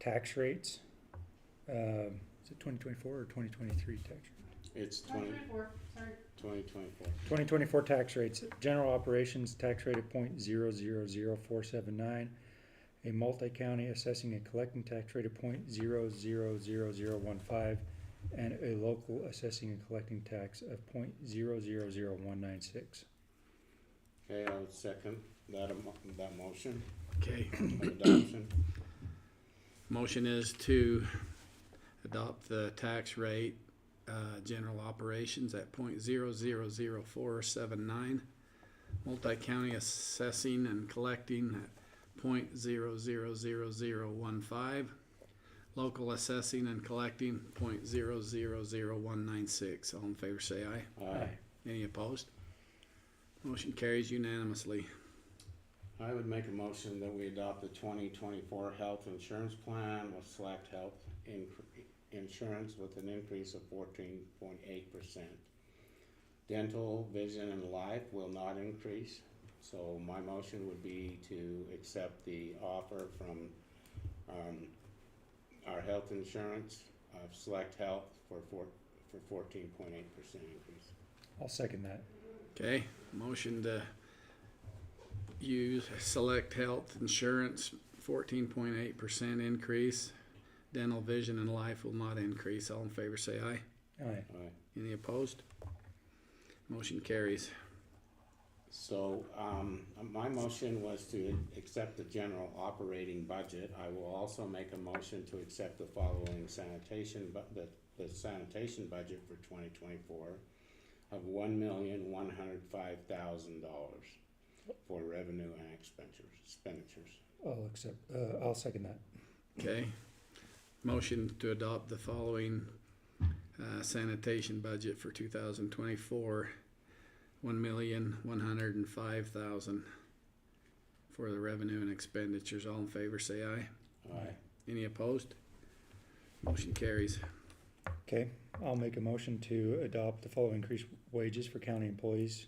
tax rates. Um, Is it twenty twenty-four or twenty twenty-three tax? It's Twenty twenty, twenty-four, sorry. twenty twenty-four. Twenty twenty-four tax rates, general operations tax rate of point zero zero zero four seven nine. A multi-county assessing and collecting tax rate of point zero zero zero zero one five. And a local assessing and collecting tax of point zero zero zero one nine six. Okay, I would second that, emo- that motion Okay, of adoption. motion is to adopt the tax rate, uh, general operations at point zero zero zero four seven nine. Multi-county assessing and collecting at point zero zero zero zero one five. Local assessing and collecting point zero zero zero one nine six. All in favor, say aye. Aye. Any opposed? Motion carries unanimously. I would make a motion that we adopt the twenty twenty-four health insurance plan with select health incre- insurance with an increase of fourteen point eight percent. Dental, vision, and life will not increase, so my motion would be to accept the offer from, um, our health insurance of select health for four, for fourteen point eight percent increase. I'll second that. Okay, motion to use Select Health Insurance, fourteen point eight percent increase. Dental, vision, and life will not increase. All in favor, say aye. Aye. Aye. Any opposed? Motion carries. So, um, my motion was to accept the general operating budget. I will also make a motion to accept the following sanitation, but the, the sanitation budget for twenty twenty-four of one million, one hundred five thousand dollars for revenue and expenditures, expenditures. I'll accept, uh, I'll second that. Okay, motion to adopt the following uh, sanitation budget for two thousand twenty-four. One million, one hundred and five thousand for the revenue and expenditures. All in favor, say aye. Aye. Any opposed? Motion carries. Okay, I'll make a motion to adopt the following increased wages for county employees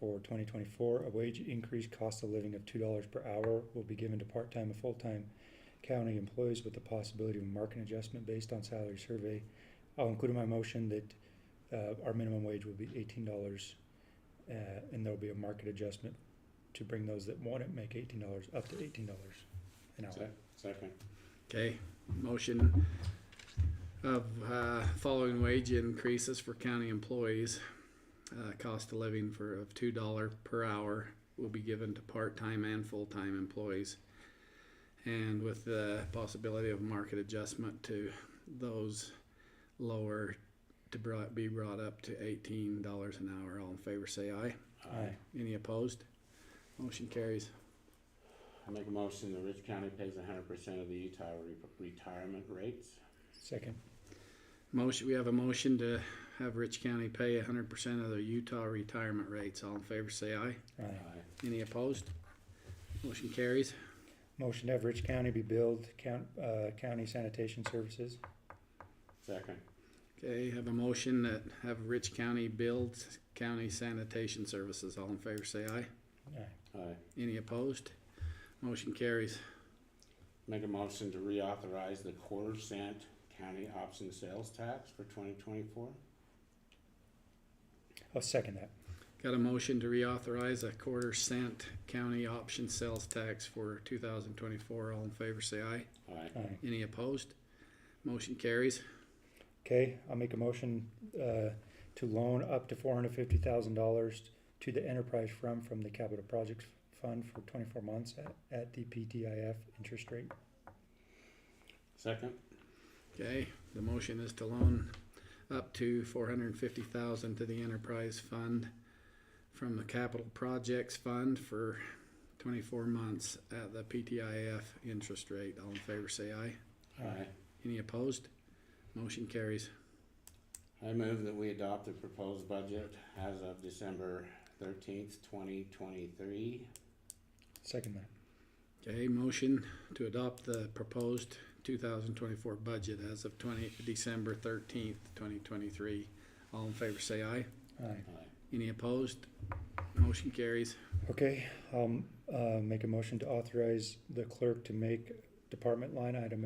for twenty twenty-four. A wage increase cost of living of two dollars per hour will be given to part-time and full-time county employees with the possibility of a market adjustment based on salary survey. I'll include in my motion that, uh, our minimum wage will be eighteen dollars, uh, and there'll be a market adjustment to bring those that want it make eighteen dollars, up to eighteen dollars an hour. Se- Second, Okay, motion of, uh, following wage increases for county employees. Uh, cost of living for, of two dollar per hour will be given to part-time and full-time employees. And with the possibility of market adjustment to those lower to brought, be brought up to eighteen dollars an hour. All in favor, say aye. Aye. Any opposed? Motion carries. I make a motion that Rich County pays hundred percent of the Utah re- retirement rates. Second, Motion, we have a motion to have Rich County pay hundred percent of their Utah retirement rates. All in favor, say aye. aye. Any opposed? Motion carries. Motion to have Rich County be billed count, uh, county sanitation services. Second, Okay, have a motion that have Rich County build county sanitation services. All in favor, say aye. Aye. aye. Any opposed? Motion carries. Make a motion to reauthorize the quarter cent county option sales tax for twenty twenty-four? I'll second that. Got a motion to reauthorize a quarter cent county option sales tax for two thousand twenty-four. All in favor, say aye. Aye. Aye. Any opposed? Motion carries. Okay, I'll make a motion, uh, to loan up to four hundred fifty thousand dollars to the enterprise fund from the capital projects fund for twenty-four months at, at the PTIF interest rate. Second? Okay, the motion is to loan up to four hundred and fifty thousand to the enterprise fund from the capital projects fund for twenty-four months at the PTIF interest rate. All in favor, say aye. Aye. Any opposed? Motion carries. I move that we adopt the proposed budget as of December thirteenth, twenty twenty-three. Second that. Okay, motion to adopt the proposed two thousand twenty-four budget as of twenty, December thirteenth, twenty twenty-three. All in favor, say aye. Aye. Aye. Any opposed? Motion carries. Okay, I'll, uh, make a motion to authorize the clerk to make department line item